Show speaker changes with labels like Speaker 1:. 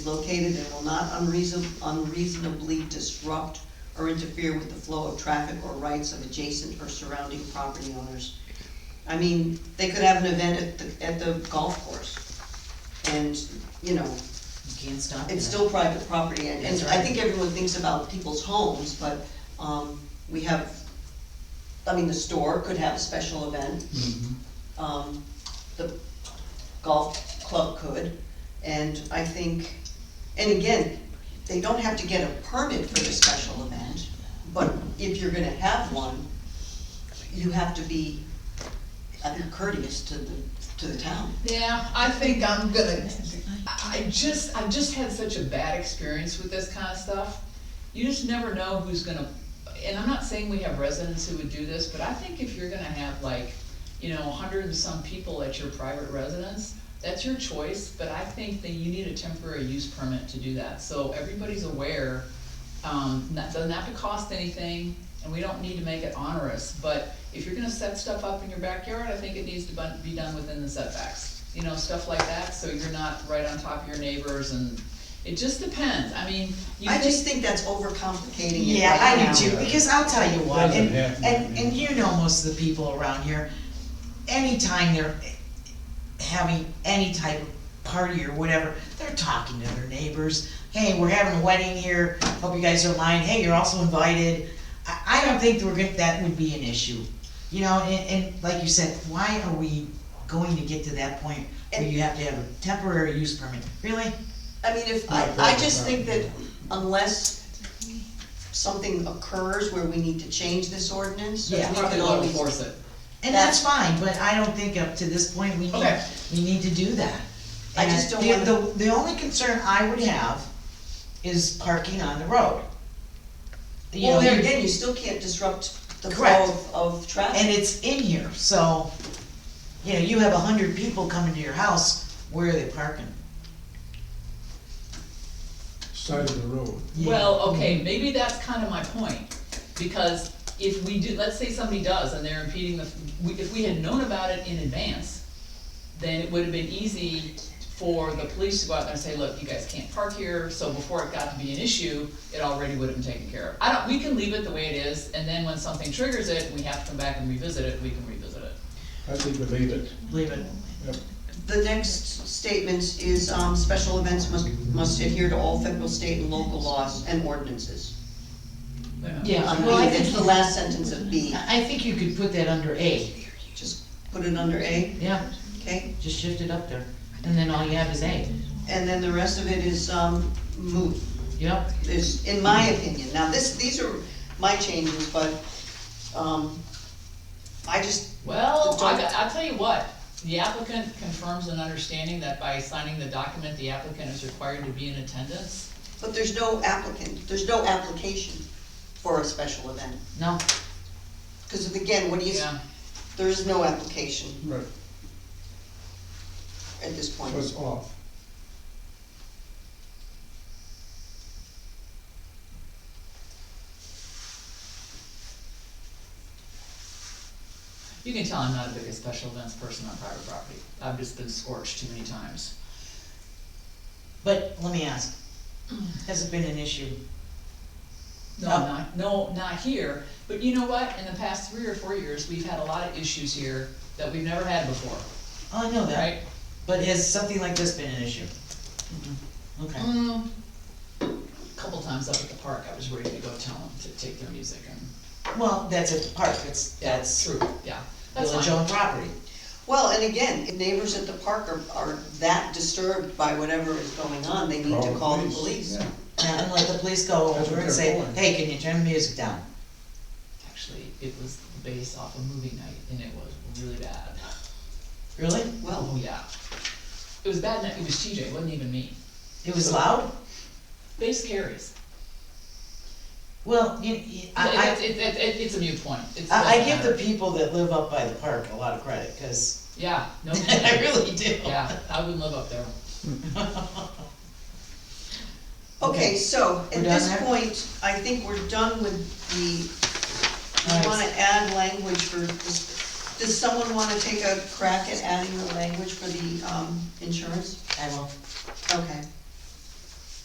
Speaker 1: located and will not unreason- unreasonably disrupt or interfere with the flow of traffic or rights of adjacent or surrounding property owners. I mean, they could have an event at the, at the golf course, and, you know,
Speaker 2: You can't
Speaker 1: it's
Speaker 2: stop that.
Speaker 1: still private property, and, and
Speaker 2: That's
Speaker 1: I
Speaker 2: right.
Speaker 1: think everyone thinks about people's homes, but, um, we have, I mean, the store could have a special event, um, the golf club could, and I think, and again, they don't have to get a permit for the special event, but if you're gonna have one, you have to be, I think, courteous to the, to the town.
Speaker 3: Yeah, I think I'm gonna, I I just, I've just had such a bad experience with this kind of stuff. You just never know who's gonna, and I'm not saying we have residents who would do this, but I think if you're gonna have like, you know, a hundred and some people at your private residence, that's your choice, but I think that you need a temporary use permit to do that, so everybody's aware. Um, that doesn't have to cost anything, and we don't need to make it onerous, but if you're gonna set stuff up in your backyard, I think it needs to bun- be done within the setbacks. You know, stuff like that, so you're not right on top of your neighbors and, it just depends, I mean, you
Speaker 1: I just
Speaker 3: think,
Speaker 1: think that's overcomplicating it
Speaker 2: Yeah,
Speaker 1: right
Speaker 2: I
Speaker 1: now.
Speaker 2: do too, because I'll tell you what,
Speaker 4: Doesn't
Speaker 2: and,
Speaker 4: happen,
Speaker 2: and,
Speaker 4: yeah.
Speaker 2: and you know most of the people around here, anytime they're having any type of party or whatever, they're talking to their neighbors, hey, we're having a wedding here, hope you guys don't mind, hey, you're also invited. I, I don't think we're gonna, that would be an issue, you know, and, and like you said, why are we going to get to that point where you have to have a temporary use permit, really?
Speaker 1: I mean, if, I, I just think that unless something occurs where we need to change this ordinance, we
Speaker 2: Yeah.
Speaker 3: we
Speaker 1: could
Speaker 3: probably won't
Speaker 1: always.
Speaker 3: enforce it.
Speaker 2: And that's fine, but I don't think up to this point, we need,
Speaker 3: Okay.
Speaker 2: we need to do that.
Speaker 1: I just don't
Speaker 2: And the-
Speaker 1: wanna-
Speaker 2: The, the only concern I would have is parking on the road. You
Speaker 1: Well,
Speaker 2: know,
Speaker 1: there
Speaker 2: you-
Speaker 1: again, you still can't disrupt the flow
Speaker 2: Correct.
Speaker 1: of, of
Speaker 2: And
Speaker 1: traffic.
Speaker 2: it's in here, so, you know, you have a hundred people coming to your house, where are they parking?
Speaker 4: side of the road.
Speaker 2: Yeah.
Speaker 3: Well, okay, maybe that's kind of my point, because if we do, let's say somebody does and they're impeding the, we- if we had known about it in advance, then it would have been easy for the police to go out there and say, look, you guys can't park here, so before it got to be an issue, it already would have been taken care of. I don't, we can leave it the way it is, and then when something triggers it, we have to come back and revisit it, we can revisit it.
Speaker 4: I think we leave it.
Speaker 2: Leave it,
Speaker 4: Yep.
Speaker 1: The next statement is, um, special events must, must adhere to all federal, state, and local laws and ordinances.
Speaker 2: Yeah.
Speaker 1: On
Speaker 2: Well, I
Speaker 1: B,
Speaker 2: think-
Speaker 1: it's the last sentence of B,
Speaker 2: I, I think you could put that under A,
Speaker 1: just put it under A,
Speaker 2: yeah,
Speaker 1: okay?
Speaker 2: just shift it up there, and then all you have is A,
Speaker 1: And then the rest of it is, um, moot.
Speaker 2: yep.
Speaker 1: is, in my opinion, now this, these are my changes, but, um, I just,
Speaker 3: Well,
Speaker 1: Don't-
Speaker 3: I, got- I'll tell you what, the applicant confirms an understanding that by signing the document, the applicant is required to be in attendance.
Speaker 1: but there's no applicant, there's no application for a special event.
Speaker 2: No,
Speaker 1: Cause again, what do you,
Speaker 3: Yeah,
Speaker 1: there is no application
Speaker 4: Right,
Speaker 1: at this point.
Speaker 4: so it's off.
Speaker 3: you can tell I'm not a big special events person on private property, I've just been scorched too many times.
Speaker 2: but let me ask, has it been an issue?
Speaker 3: No,
Speaker 2: No.
Speaker 3: not, no, not here, but you know what, in the past three or four years, we've had a lot of issues here that we've never had before,
Speaker 2: Oh, I know that.
Speaker 3: right?
Speaker 2: But has something like this been an issue? Okay,
Speaker 3: Mm, Couple times up at the park, I was ready to go tell them to take their music and,
Speaker 2: well, that's at the park, it's,
Speaker 3: that's
Speaker 2: that's
Speaker 3: Mm-hmm. true, yeah, that's fine.
Speaker 2: village owned property.
Speaker 1: Well, and again, if neighbors at the park are, are that disturbed by whatever is going on, they need to call the police.
Speaker 4: Yeah.
Speaker 2: Now, and let the police go
Speaker 4: That's
Speaker 2: over and
Speaker 4: what they're
Speaker 2: say,
Speaker 4: for.
Speaker 2: hey, can you turn the music down?
Speaker 3: Actually, it was based off a movie night and it was really bad.
Speaker 2: Really?
Speaker 1: Well,
Speaker 3: Oh, yeah. It was bad night, it was TJ, it wasn't even me.
Speaker 2: It was loud?
Speaker 3: Base carries.
Speaker 2: Well, you, you-
Speaker 3: It-
Speaker 2: I,
Speaker 3: it- it- it- it's a mute point. It's-
Speaker 2: I, I
Speaker 3: doesn't
Speaker 2: give the
Speaker 3: matter.
Speaker 2: people that live up by the park a lot of credit, cause
Speaker 3: Yeah, no
Speaker 2: I
Speaker 3: kidding.
Speaker 2: really do.
Speaker 3: Yeah, I wouldn't live up there.
Speaker 1: okay, so
Speaker 2: We're
Speaker 1: at
Speaker 2: done
Speaker 1: this
Speaker 2: there?
Speaker 1: point, I think we're done with the, you
Speaker 2: All right.
Speaker 1: wanna add language for this, does someone wanna take a crack at adding the language for the, um, insurance?
Speaker 2: I will.
Speaker 1: Okay,